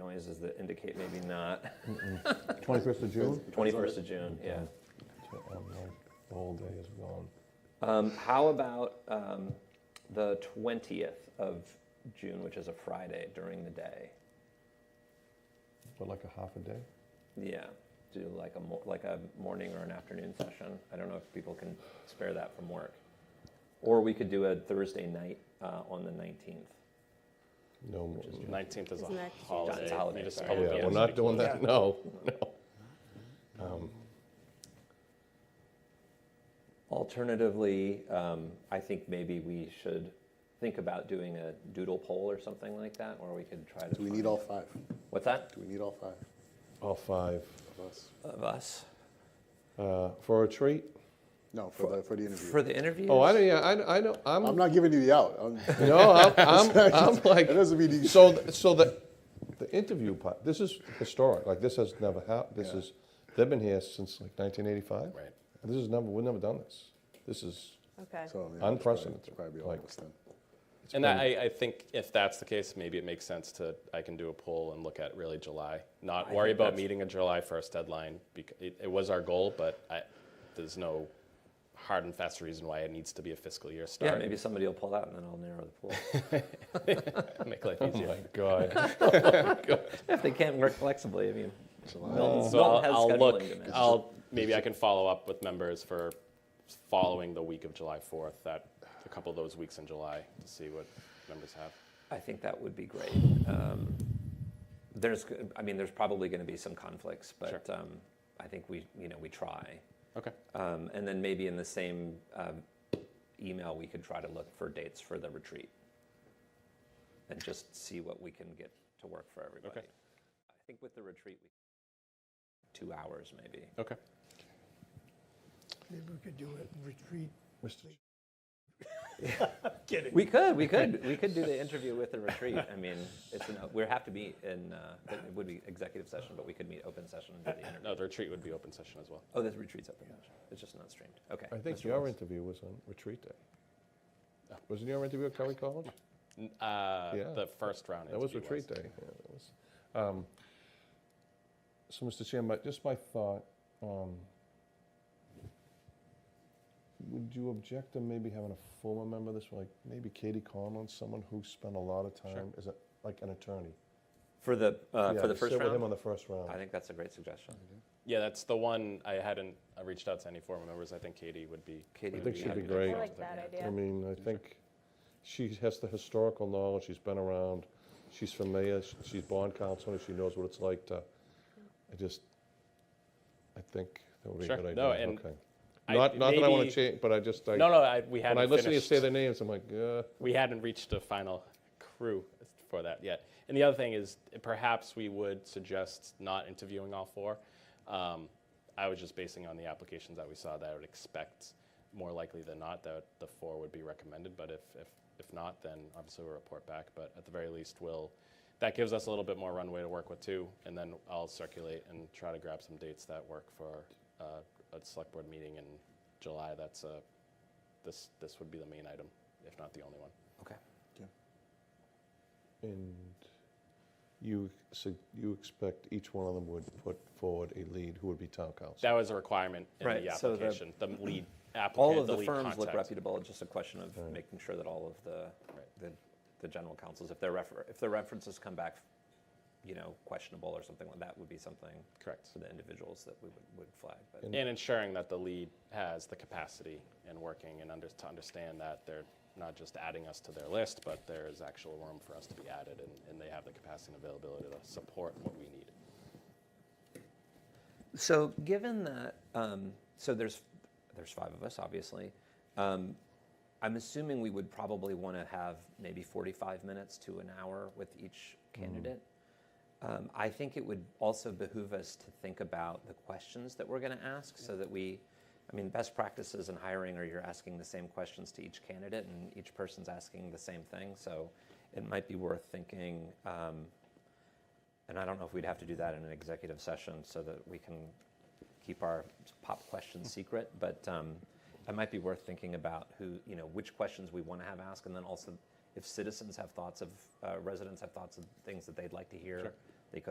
noises that indicate maybe not. 21st of June? Twenty-first of June, yeah. Oh, no, The whole day is gone. Um, how about um, the twentieth of June, which is a Friday during the day? But like a half a day? Yeah, do like a mo- like a morning or an afternoon session. I don't know if people can spare that from work, or we could do a Thursday night uh, on the nineteenth. No more. Nineteenth is Isn't a that Tuesday? holiday. It's a holiday, Municipal- sorry. Yeah, yeah, we're not doing that, municipal- no, no. Alternatively, um, I think maybe we should think about doing a doodle poll or something like that, or we could try to. Do we find- need all five? What's that? Do we need all five All five. of us? Of us Uh, For a treat? No, for the, for the interview. for the interview. Oh, I don't, yeah, I, I don't, I'm, I'm not giving you the out. I'm- no, I'm, I'm, I'm That like, doesn't mean you, so, th- so the, the interview part, this is historic, like, this has never happened, this Yeah. is, they've been here since like 1985. Right. This is never, we've never done this. This is, Okay. so, yeah, Unprecedented, it's Probably all like- of us then. And that, I, I think if that's the case, maybe it makes sense to, I can do a poll and look at really July. Not I worry think about that's- meeting a July first deadline, because it, it was our goal, but I, there's no hard and fast reason why it needs to be a fiscal year Yeah, start. maybe somebody will pull out and then I'll narrow the pool. Make life easier. oh God. if they can't work flexibly, I mean, Milton, So Milton has I'll, I'll scheduling look. demands. I'll maybe I can follow up with members for following the week of July 4th. That a couple of those weeks in July to see what members have. I think that would be great. Um, there's, g- I mean, there's probably going to be some conflicts, but um, I think we, you know, we try. Okay. Um, and then maybe in the same um, email, we could try to look for dates for the retreat and just see what we can get to work for everybody. I think with the retreat, we two hours maybe. Okay. Maybe we could do it in retreat. We could, we could, we could do the interview with the retreat. I mean, it's an, we have to be in. Uh, it would be executive session, but we could meet open session and do the interview. No, the retreat would be open session as well. Oh, the retreat's open session. It's just not streamed. Okay. I think Mr. your Wells. interview was on retreat day. Oh. Wasn't your interview at Kelly College? N- Uh, Yeah. The first round. That was interview retreat day. yeah, that was. Um, So, Mr. Chairman, my- just my thought, um, would you object to maybe having a former member of this, like maybe Katie Conlon, someone who spent a lot of time as a, like an attorney? for the uh, Yeah, for the to first Sit with him round. on the first round. I think that's a great suggestion. Yeah, that's the one I hadn't I reached out to any former members. I think Katie would be. Katie I would think be she'd happy be to great. I follow like with that, that yeah. I idea. mean, I think she has the historical knowledge, she's been around, she's familiar, sh- she's bond counsel, and she knows what it's like to, I just, I think that would be a Sure. good idea. No, and Okay. I- Not, not that I want maybe- to change, but I just, I, No, no, I, we hadn't. when I listen to you finished. say their names, I'm like, uh, we hadn't reached a final crew for that yet. And the other thing is, perhaps we would suggest not interviewing all four. Um, I was just basing on the applications that we saw that I would expect more likely than not that the four would be recommended. But if, if, if not, then obviously we'll report back. But at the very least, we'll, that gives us a little bit more runway to work with too. And then I'll circulate and try to grab some dates that work for uh, a select board meeting in July. That's a, this, this would be the main item, if not the only one. Okay. and you, so you expect each one of them would put forward a lead who would be town council? That was a requirement in Right, the so the- application, the lead All applicant, of the lead firms look contact. reputable. It's just a question of making sure that all of the the, the general counsels, if their refer- if their references come back, you know, questionable or something like that, would be something Correct. for the individuals that we would, would flag. But And ensuring that the lead has the capacity and working and under, to understand that they're not just adding us to their list, but there is actual room for us to be added and, and they have the capacity and availability to support what we need. So, given that, um, so there's there's five of us, obviously. Um, I'm assuming we would probably want to have maybe 45 minutes to an hour with each candidate. Um, I think it would also behoove us to think about the questions that we're going to ask, so that we, I mean, best practices in hiring are you're asking the same questions to each candidate, and each person's asking the same thing. So, it might be worth thinking. Um, and I don't know if we'd have to do that in an executive session so that we can keep our pop questions secret, but um, it might be worth thinking about who, you know, which questions we want to have asked, and then also if citizens have thoughts of, uh, residents have thoughts of things that they'd like to hear